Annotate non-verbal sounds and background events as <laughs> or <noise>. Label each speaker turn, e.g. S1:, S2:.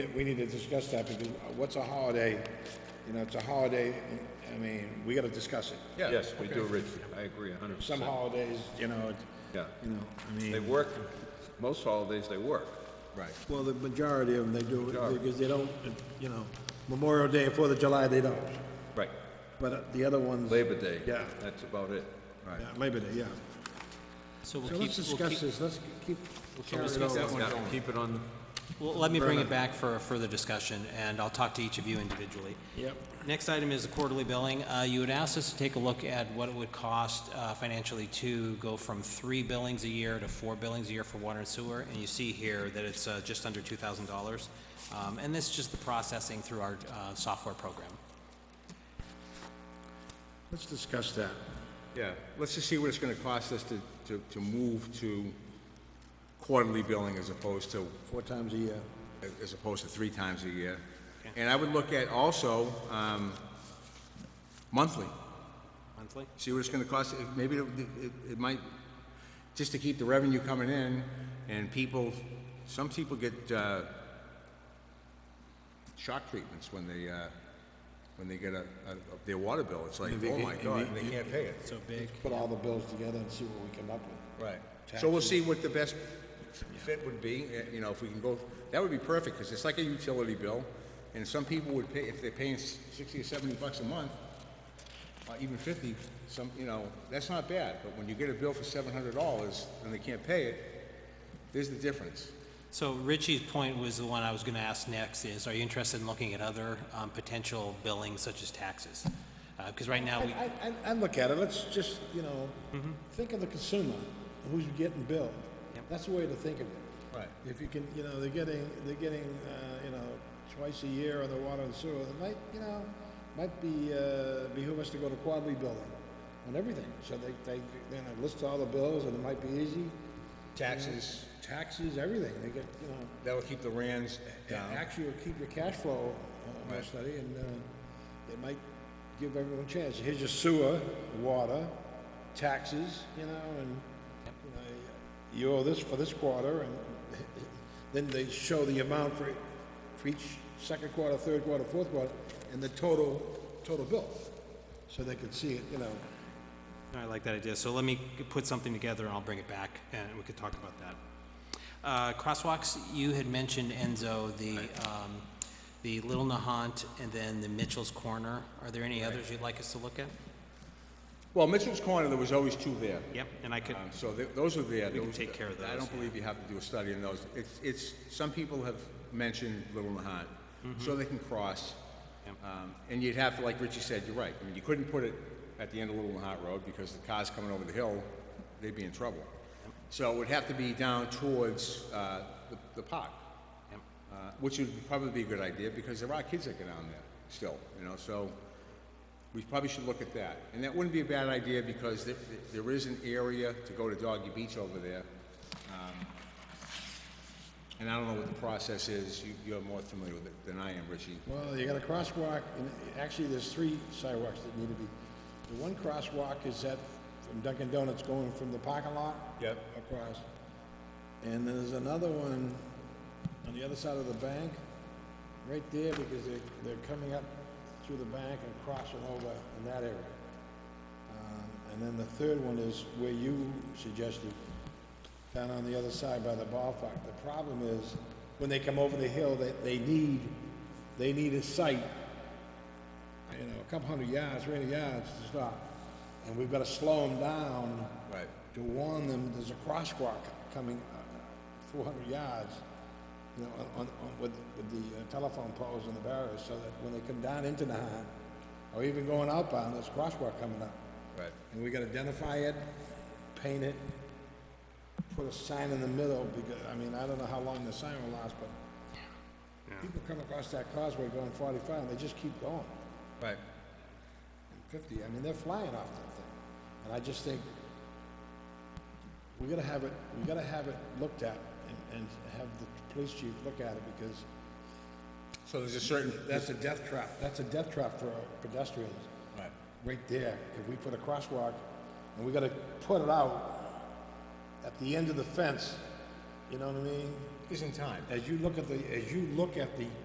S1: We need to discuss that because what's a holiday? You know, it's a holiday, I mean, we gotta discuss it.
S2: Yeah,
S3: Yes, we do,
S2: okay.
S3: Rich, I agree a hundred percent.
S1: Some holidays, you know, it-
S3: Yeah,
S1: you know, I
S3: they
S1: mean,
S3: work, most holidays they work.
S2: Right.
S4: Well, the majority of them, they do,
S3: Majority.
S4: it because they don't, you know, Memorial Day, Fourth of July, they don't.
S3: Right.
S4: But uh, the other ones,
S3: Labor Day.
S1: Yeah.
S3: That's about it.
S4: yeah, Labor Day, yeah.
S5: So we'll
S1: so
S5: keep,
S1: let's
S5: we'll
S1: discuss
S5: keep,
S1: this, let's keep,
S5: we'll discuss that one.
S3: Yeah, keep it on,
S5: Well, let me bring it back for a further discussion, and I'll talk to each of you individually.
S1: yep,
S5: Next item is the quarterly billing. Uh, You had asked us to take a look at what it would cost uh, financially to go from three billings a year to four billings a year for water and sewer, and you see here that it's uh, just under $2,000. Um, And this is just the processing through our uh, software program.
S1: let's discuss that.
S2: Yeah, let's just see what it's gonna cost us to, to, to move to quarterly billing as opposed to,
S4: Four times a year.
S2: as opposed to three times a year. And I would look at also, um, monthly,
S5: Monthly?
S2: see what it's gonna cost, If- maybe it, it, it might, just to keep the revenue coming in, and people, some people get, uh, shock treatments when they, uh, when they get a, a, their water bill, it's like, oh my god, and they can't pay it.
S5: So big.
S4: Put all the bills together and see what we come up with.
S2: Right. So we'll see what the best fit would be, eh, you know, if we can go, that would be perfect, because it's like a utility bill, and some people would pay, if they're paying s- sixty or seventy bucks a month, or even fifty, some, you know, that's not bad, but when you get a bill for seven hundred dollars and they can't pay it, there's the difference.
S5: So Richie's point was the one I was going to ask next is, are you interested in looking at other um, potential billings such as taxes? Because right now, we,
S1: I, I, I look at it, let's just, you know, think of the consumer, who's getting billed. That's the way to think of it.
S2: Right.
S1: If you can, you know, they're getting, they're getting, uh, you know, twice a year on the water and sewer, it might, you know, might be, uh, behoove us to go to quarterly billing on everything. So they, they, you know, list all the bills and it might be easy.
S2: Taxes,
S1: Taxes, everything, they get, you know,
S2: that'll keep the rands down.
S1: actually will keep your cash flow uh, on
S2: Right.
S1: study and, uh, it might give everyone a chance. Here's your sewer, water, taxes, you know, and, you know, you owe this for this quarter and <laughs> then they show the amount for, e, for each second quarter, third quarter, fourth quarter, and the total, total bill. So they can see it, you know.
S5: I like that idea. So let me g- put something together and I'll bring it back and we could talk about that. Uh, Crosswalks, you had mentioned Enzo, the, um, the Little Nahant and then the Mitchell's Corner. Are there any others you'd like us to look at?
S2: Well, Mitchell's Corner, there was always two there.
S5: Yep, and I could,
S2: Um, So th- those are there.
S5: We can
S2: Those-
S5: take care of
S2: I
S5: those,
S2: don't believe you have to do a study in those. It's, it's, some people have mentioned Little Nahat, so they can cross.
S5: Mm-hmm. Yep.
S2: Um, And you'd have to, like Richie said, you're right. I mean, you couldn't put it at the end of Little Nahat Road because the cars coming over the hill, they'd be in trouble. So it would have to be down towards uh, the the park,
S5: Yep.
S2: uh, which would probably be a good idea because there are kids that go down there still, you know, so we probably should look at that. And that wouldn't be a bad idea because there, there is an area to go to Doggy Beach over there. Um, And I don't know what the process is, you, you're more familiar with it than I am, Richie.
S1: Well, you got a crosswalk, and actually, there's three sidewalks that need to be. The one crosswalk is that from Dunkin' Donuts going from the parking lot.
S2: Yep.
S1: Across. And there's another one on the other side of the bank, right there, because they're, they're coming up through the bank and crossing over in that area. Um, And then the third one is where you suggested, down on the other side by the ball park. The problem is, when they come over the hill, they, they need, they need a site, you know, a couple hundred yards, three hundred yards to stop. And we've gotta slow them down
S2: Right.
S1: to warn them, there's a crosswalk coming uh, four hundred yards, you know, on, on, with, with the uh, telephone poles and the barriers, so that when they come down into Nahat, or even going outbound, there's a crosswalk coming up.
S2: Right.
S1: And we gotta identify it, paint it, put a sign in the middle, because, I mean, I don't know how long the sign will last, but people come across that causeway going forty-five, and they just keep going,
S2: Right.
S1: and fifty, I mean, they're flying off that thing. And I just think, we gotta have it, we gotta have it looked at, and, and have the police chief look at it, because
S2: So there's a certain,
S1: that's a death trap, that's a death trap for pedestrians.
S2: right.
S1: right there, if we put a crosswalk, and we gotta put it out at the end of the fence, you know what I mean?
S2: isn't time.
S1: As you look at the, as you look at the